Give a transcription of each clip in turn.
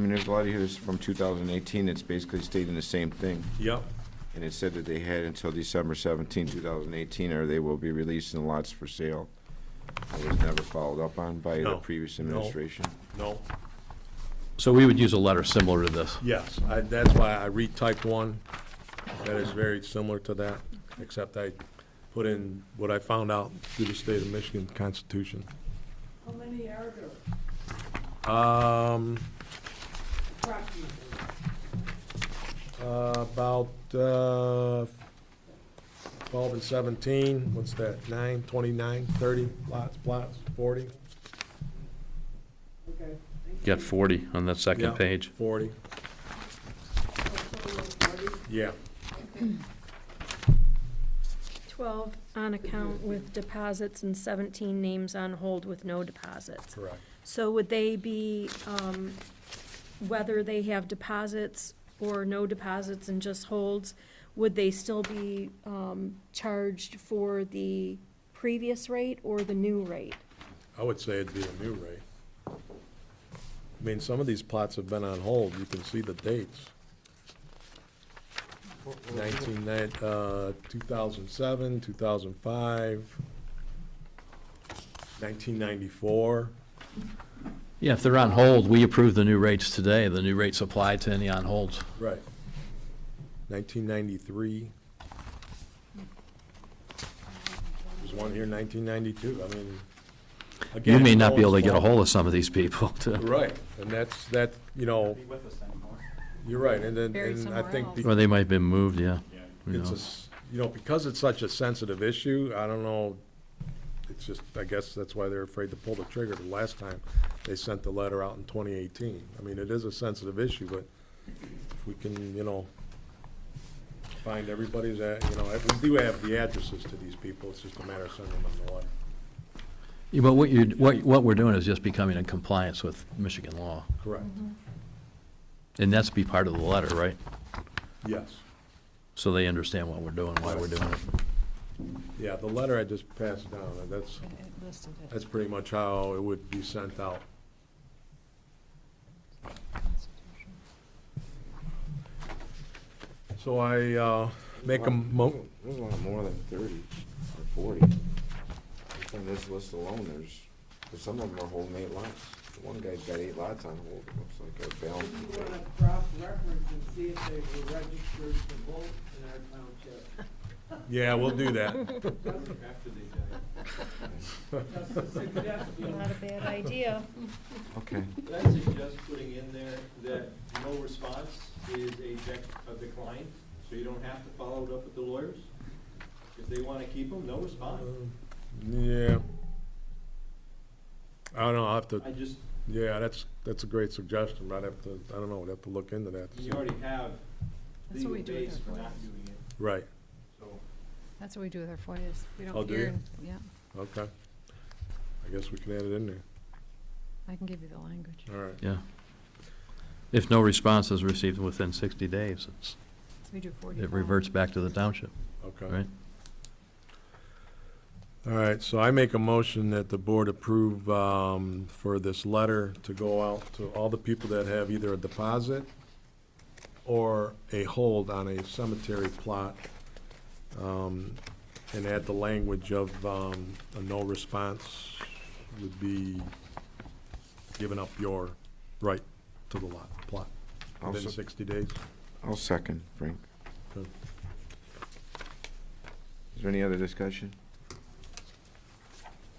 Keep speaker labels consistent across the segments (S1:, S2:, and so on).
S1: I mean, there's a lot of here that's from 2018 that's basically stating the same thing.
S2: Yep.
S1: And it said that they had until December 17, 2018, or they will be releasing lots for sale. It was never followed up on by the
S2: No.
S1: previous
S2: No.
S1: administration.
S2: No.
S3: So we would use a letter similar to this.
S2: Yes, I, that's why I retyped one that is very similar to that, except I put in what I found out through the state of Michigan Constitution.
S4: How many are there
S2: Um,
S4: approximately?
S2: uh, about, uh, twelve and seventeen, what's that, nine, twenty-nine, thirty lots, plots, forty?
S4: Okay.
S3: Got 40 on that
S2: Yeah,
S3: second page.
S2: Forty, yeah.
S5: Twelve on account with deposits and seventeen names on hold with no deposits.
S2: Correct.
S5: So would they be, um, whether they have deposits or no deposits and just holds, would they still be, um, charged for the previous rate or the new rate?
S2: I would say it'd be a new rate. I mean, some of these plots have been on hold, you can see the dates. Nineteen nine, uh, two thousand seven, two thousand five, nineteen ninety-four.
S3: Yeah, if they're on hold, we approve the new rates today. The new rates apply to any on holds.
S2: Right. Nineteen ninety-three. There's one here nineteen ninety-two, I mean.
S3: You may
S2: again,
S3: not be able to
S2: it's
S3: get a
S2: all-
S3: hold of some of these people. to-
S2: Right, and that's, that, you know, you're right, and then,
S5: Buried
S2: and I
S5: somewhere
S2: think
S5: else.
S2: the-
S3: Or they might have been moved, yeah. Who
S2: it's a,
S3: knows?
S2: s- you know, because it's such a sensitive issue, I don't know, it's just, I guess that's why they're afraid to pull the trigger the last time they sent the letter out in twenty eighteen. I mean, it is a sensitive issue, but if we can, you know, find everybody's, at you know, we do have the addresses to these people, it's just a matter of sending them the letter.
S3: Yeah, But what you, what, what we're doing is just becoming in compliance with Michigan law.
S2: Correct,
S5: Mm-hmm.
S3: And that's be part of the letter, right?
S2: yes.
S3: So they understand what we're doing, why we're doing it.
S2: Yeah, the letter I just passed down, and that's, that's pretty much how it would be sent out. So I, uh, make a mo,
S1: There's a lot more than 30 or 40. Just On this list alone, there's, 'cause some of them are holding eight lots. The One guy's got eight lots on hold, it looks like, a
S4: If
S1: balance.
S4: you want to cross-reference and see if they were registered to vote in our township.
S2: yeah, we'll do that.
S4: Just a suggestion.
S5: a bad idea.
S1: Okay.
S6: Could I suggest putting in there that no response is a dec- a decline, so you don't have to follow it up with the lawyers? If they want to keep them, no response.
S2: Yeah. I don't know, I'll have to,
S6: I just,
S2: yeah, that's, that's a great suggestion, but I'd have to, I don't know, I'd have to look into that. to
S6: you
S2: see.
S6: already have
S7: That's
S6: legal
S7: what we do
S6: base
S7: with
S6: for
S7: our
S6: not
S7: FOIAs.
S6: doing it,
S2: Right,
S6: so.
S7: That's what we do with our FOIAs. We
S2: Oh,
S7: don't
S2: do
S7: hear,
S2: you?
S7: and- yeah,
S2: okay. I guess we can add it in there,
S7: I can give you the language.
S2: all right.
S3: Yeah. If no response is received within 60 days, it's-
S7: We do forty.
S3: it reverts back to the township,
S2: Okay.
S3: right?
S2: All right, so I make a motion that the board approve um, for this letter to go out to all the people that have either a deposit or a hold on a cemetery plot, um, and add the language of um, a no response would be giving up your right to the lot, plot,
S1: I'll
S2: within
S1: sec-
S2: 60 days.
S1: I'll second, Frank.
S2: Good.
S1: Is there any other discussion?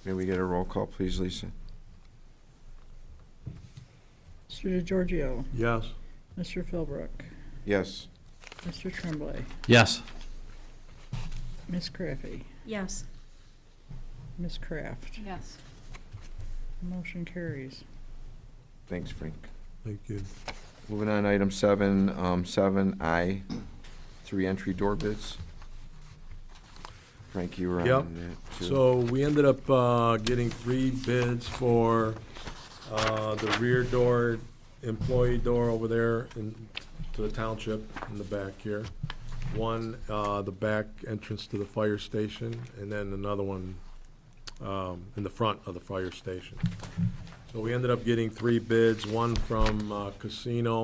S1: May we get a roll call, please, Lisa?
S8: Mr. DeGiorgio,
S2: Yes?
S8: Mr. Philbrook,
S1: Yes.
S8: Mr. Tremblay,
S3: Yes,
S8: Miss Craffey,
S5: Yes.
S8: Miss Craft.
S7: Yes.
S8: Motion carries.
S1: Thanks, Frank.
S2: Thank you.
S1: Moving on, item seven, um, seven I, three entry door bids. Frank, you were
S2: Yep.
S1: on that too.
S2: So we ended up uh, getting three bids for uh, the rear door, employee door over there in, to the township in the back here. One, uh, the back entrance to the fire station, and then another one um, in the front of the fire station. So we ended up getting three bids, one from uh, Casino,